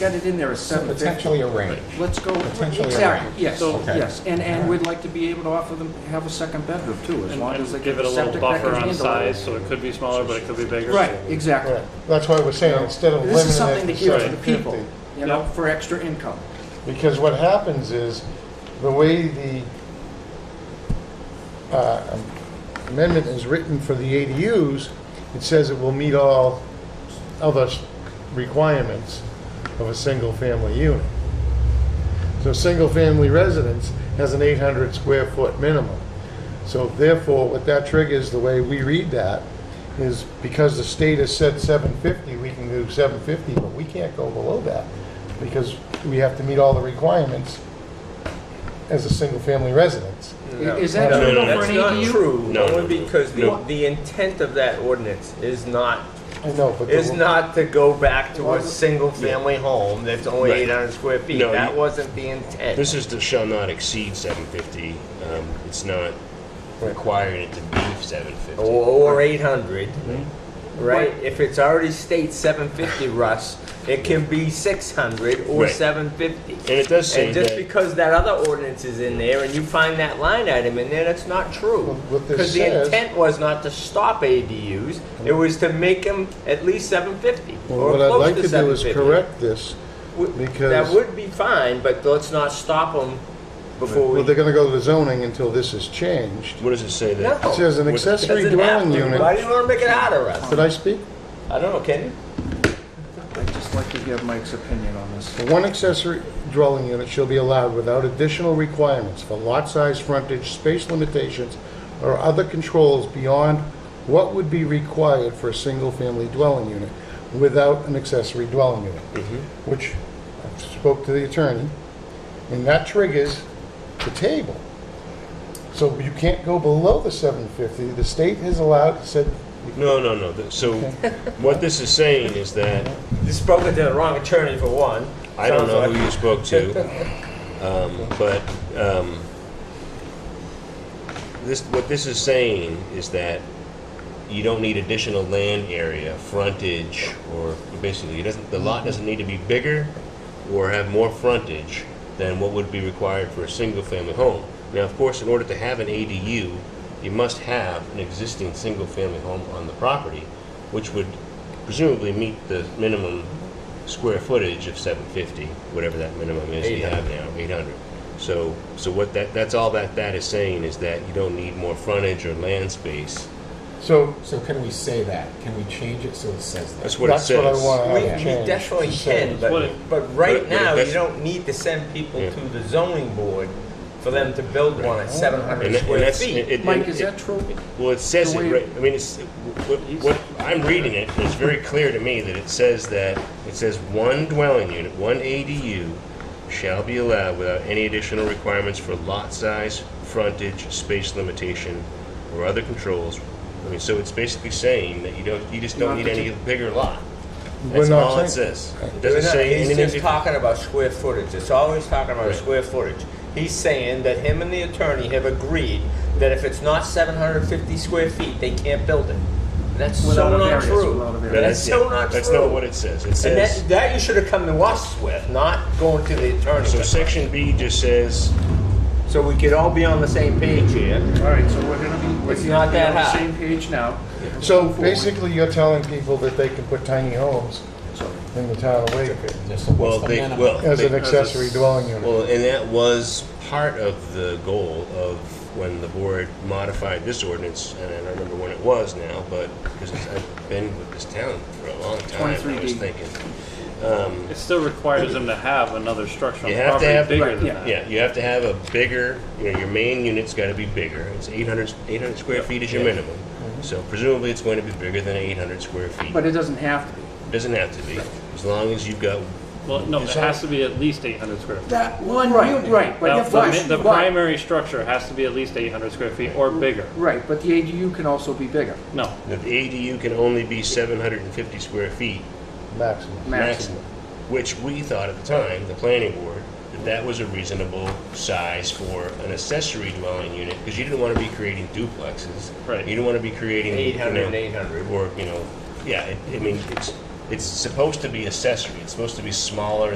Got it in there as seven fifty. Potentially a range. Let's go, Potentially exactly, yes, So- yes. And, and Okay. we'd like to be able to offer them, have a second bedroom too, as And long and as they get give it the a little septic that buffer can on handle it. size, so it could be smaller, but it could be bigger. Right, exactly. Right. That's why we're saying, instead of This is something limiting to it give to to the 750. people, you know, for extra income. Because what happens is, the way the uh, amendment is written for the ADUs, it says it will meet all other s- requirements of a single-family unit. So, single-family residence has an 800 square foot minimum. So therefore, what that triggers, the way we read that, is because the state has said 750, we can do 750, but we can't go below that because we have to meet all the requirements as a single-family residence. I- Is that No, true no, though for that's an not ADU? true, No, no, only no. because the, No. the intent of that ordinance is not, I know, but. the- is not to go back to a Wasn't- single-family home that's only Right. eight hundred square feet. No, That you- wasn't the intent. This is the shall not exceed seven fifty. Um, it's not requiring it to be seven fifty. Or, or eight hundred, Hmm. right? If it's already states seven fifty, Russ, it can be six hundred or Right. seven fifty. And it does say And just that- because that other ordinance is in there and you find that line item in there, that's not Well, true. what this Because the says- intent was not to stop ADUs, it was to make them at least seven fifty Well, or What I'd close like to to do seven is fifty. correct this. That because- would be fine, but let's not stop them before we. Well, they're gonna go to the zoning until this is changed. What does it say that? No. It says an What- accessory Doesn't have dwelling to. Why do unit. you wanna make it harder, Russ? Did I speak? I don't know, can you? I'd just like to give Mike's opinion on this. One accessory dwelling unit shall be allowed without additional requirements for lot size, frontage, space limitations, or other controls beyond what would be required for a single-family dwelling unit without an accessory dwelling unit, Mm-hmm. which I spoke to the attorney, and that triggers the table. So you can't go below the 750. The state has allowed, said, No, no, no. Th- So what this is saying is that You spoke to the wrong attorney for one. I don't Sounds know like- who you spoke to, um, but um, this what this is saying is that you don't need additional land area, frontage, or basically, it doesn't. The lot doesn't need to be bigger or have more frontage than what would be required for a single-family home. Now, of course, in order to have an ADU, you must have an existing single-family home on the property, which would presumably meet the minimum square footage of 750, whatever that minimum is you have now, 800. So, so what that, that's all that that is saying is that you don't need more frontage or land space. so So can we say that? Can we change it so it says that? That's what it that's says. what I want to We, have we changed. definitely can, What but, it- but right but- but now, if you that's- don't need to send people Yeah. to the zoning board for them to build one at seven And hundred that- and square that's- feet. it- it- Mike, is it- that true? Well, it says The it, way- right, I mean, it's, what, what, I'm reading it, and it's very clear to me that it says that, it says one dwelling unit, one ADU shall be allowed without any additional requirements for lot size, frontage, space limitation, or other controls. I mean, so it's basically saying that you don't, you just don't Not need any bigger lot. We're That's not all it saying- says. It We're doesn't not- say He's anything. just if- talking about square footage, it's always talking about Right. square footage. He's saying that him and the attorney have agreed that if it's not seven hundred fifty square feet, they can't build it. That's Without so a not variance, true. without a variance. No, That's it. so not That's not true. what it says. It And says. that, that you should have come to us with, not going to the attorney. So section B just says, So we could all be on the same page here. All right, so we're gonna be, we're It's not gonna be on that the high. same page now. So basically, you're telling people that they can put tiny homes So- in the town of Wakefield. So what's well, the they, minimum? well. As an they- accessory dwelling unit. Well, and that was part of the goal of when the board modified this ordinance, and I don't remember when it was now, but, because I've been with this town for a long time, I was 23D. thinking. It still requires them to have another structure on You the have to property have, bigger right, than that. yeah, you have to have a bigger, you know, your main unit's gotta be bigger. It's 800 800 square feet is your minimum. Mm-hmm. So presumably, it's going to be bigger than eight hundred square feet. But it doesn't have to be. Doesn't have to be, as long as you've got, Well, no, it has to be at least 800 square feet. That one. Right, right, Now, but the mi- the, the primary structure has to be at least 800 square feet or bigger. Right, but the ADU can also be bigger, No, the ADU can only be seven hundred and fifty square feet maximum. maximum. maximum, which we thought at the time, the planning board, that that was a reasonable size for an accessory dwelling unit, because you didn't want to be creating duplexes. Right. You didn't want to be creating. you 800, know, 800. Or, you know, yeah, it- I mean, it's, it's supposed to be accessory, it's supposed to be smaller